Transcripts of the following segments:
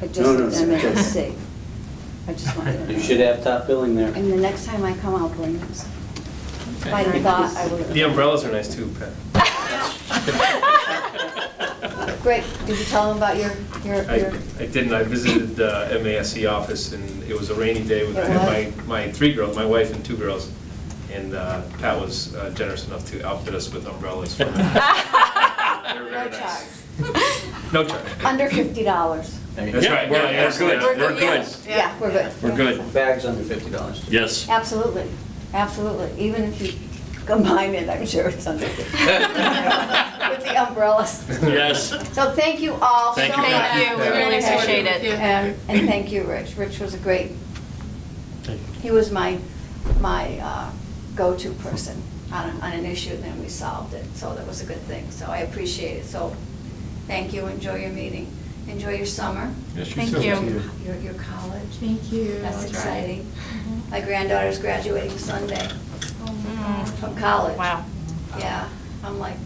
but No, no, just an it's okay. MHC. I just wanted to You know. should have top billing there. And the next time I come, I'll bring those. Okay. I thought I would. The umbrellas are nice too, Pat. Great, did you tell them about your, your, I, your, I didn't, I visited the MASC office, and it was a rainy day with It my, my three girls, my wife and two girls, and uh, Pat was uh, generous enough to outfit us with umbrellas. for the- They no were very charge? nice. No charge. Under fifty dollars. That's right, we're- Yeah, we're good, We're we're good. Yeah, we're good. We're good, Bags under fifty dollars. yes. Absolutely, absolutely. Even if you combine it, I'm sure it's under fifty. With the umbrellas. Yes. So thank you all so much. Thank you, Pat. Thank you, we really appreciate it. And, and thank you, Rich. Rich was a great, he was my, my uh, go-to person on, on an issue, and then we solved it, so that was a good thing. So I appreciate it, so thank you, enjoy your meeting, enjoy your summer. Yes, you Thank too. you. Your, your college, Thank you. that's That's exciting. right. My granddaughter's graduating Sunday Mm. from college. Wow. Yeah, I'm like,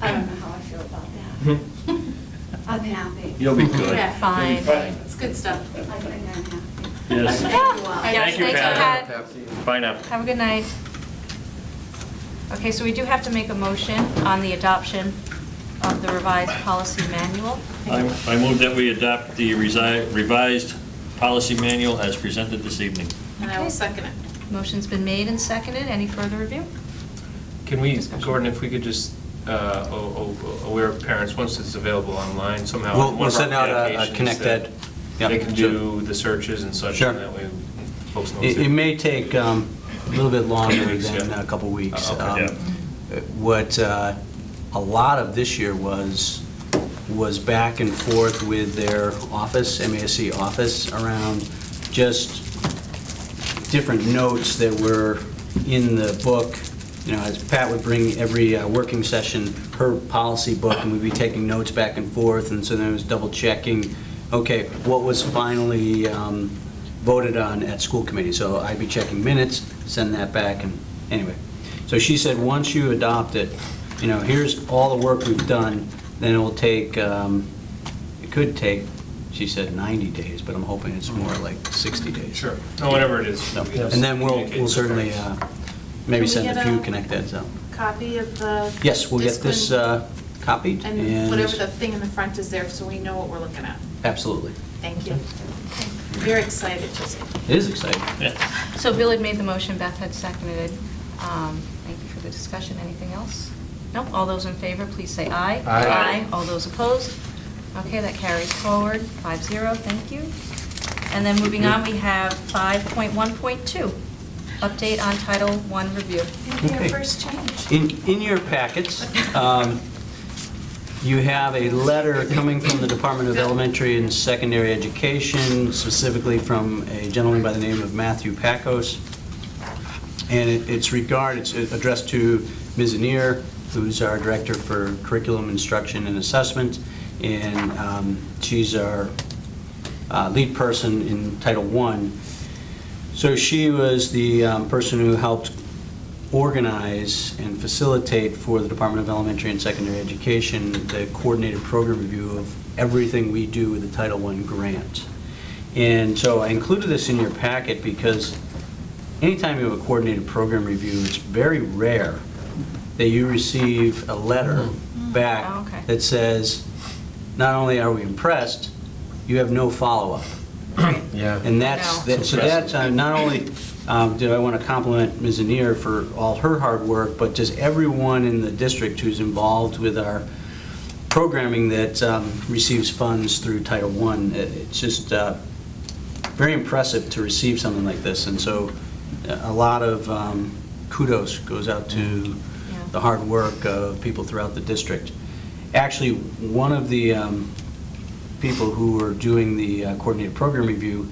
I don't know how I feel about that. I'm happy. Hmm. You'll be good. Yeah. Fine. It's good stuff. I think I'm happy. Yes. Thank you all. Thank you, Yes, Pat. thank you, Pat. Bye now. Have a good night. Okay, so we do have to make a motion on the adoption of the revised policy manual. I I move that we adopt the resi- revised policy manual as presented this evening. And I Okay. will second it. Motion's been made and seconded. Any further review? Can we, Gordon, if we could just uh, o- o- aware parents, once it's available online somehow. We'll- one we'll of our send out a- a applications Connect that Ed. Yeah, They can sure. do the searches and such, Sure. and that way folks know. It it too. may take um, a little bit longer Weeks, than yeah. a couple weeks. Uh, okay. Um, Yeah. What uh, a lot of this year was, was back and forth with their office, MASC office, around just different notes that were in the book. You know, as Pat would bring every uh, working session, her policy book, and we'd be taking notes back and forth, and so then it was double checking, okay, what was finally um, voted on at school committee? So I'd be checking minutes, send that back, and anyway. So she said, once you adopt it, you know, here's all the work we've done, then it will take, um, it could take, she said 90 days, but I'm hoping it's more like 60 days. Sure, no, whatever it is. No, we can And then we'll, communicate we'll with certainly parents. uh, maybe Can send we a get uh, few a- Connect Eds out. Copy of the. Yes, we'll get this discipline uh, copied And whatever the and, thing in the front is there, so we know what we're looking at. absolutely. Thank you. You're excited, Jessica. It is exciting. Yeah. So Bill had made the motion, Beth had seconded. it. Um, Thank you for the discussion. Anything else? No? All those in favor, please say aye. Aye. All those opposed? Okay, that carries forward, 5-0, thank you. And then moving on, we have 5.1.2, update on Title I review. Your Okay. first change. In, in your packets, um, you have a letter coming from the Department of Elementary and Secondary Education, specifically from a gentleman by the name of Matthew Pacos. And it- it's regard, it's addressed to Ms. Anier, who's our Director for Curriculum Instruction and Assessment, and um, she's our uh, lead person in Title I. So she was the um, person who helped organize and facilitate for the Department of Elementary and Secondary Education the coordinated program review of everything we do with the Title I grant. And so I included this in your packet because anytime you have a coordinated program review, it's very rare that you receive a letter Oh, okay. back that says, not only are we impressed, you have no follow-up. Yeah. And that's, No. that- so that's, uh, not only um, do I want to compliment Ms. Anier for all her hard work, but just everyone in the district who's involved with our programming that um, receives funds through Title I. It- It's just uh, very impressive to receive something like this, and so uh, a lot of um, kudos goes out to the hard work of people throughout the district. Actually, one of the um, people who are doing the uh, coordinated program review,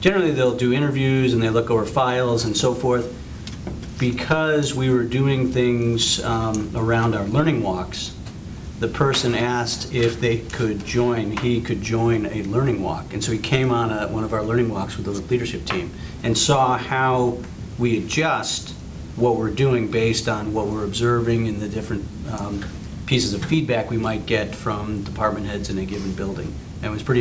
generally they'll do interviews and they look over files and so forth. Because we were doing things um, around our learning walks, the person asked if they could join, he could join a learning walk. And so he came on a- one of our learning walks with the leadership team and saw how we adjust what we're doing based on what we're observing and the different um, pieces of feedback we might get from department heads in a given building. And it was pretty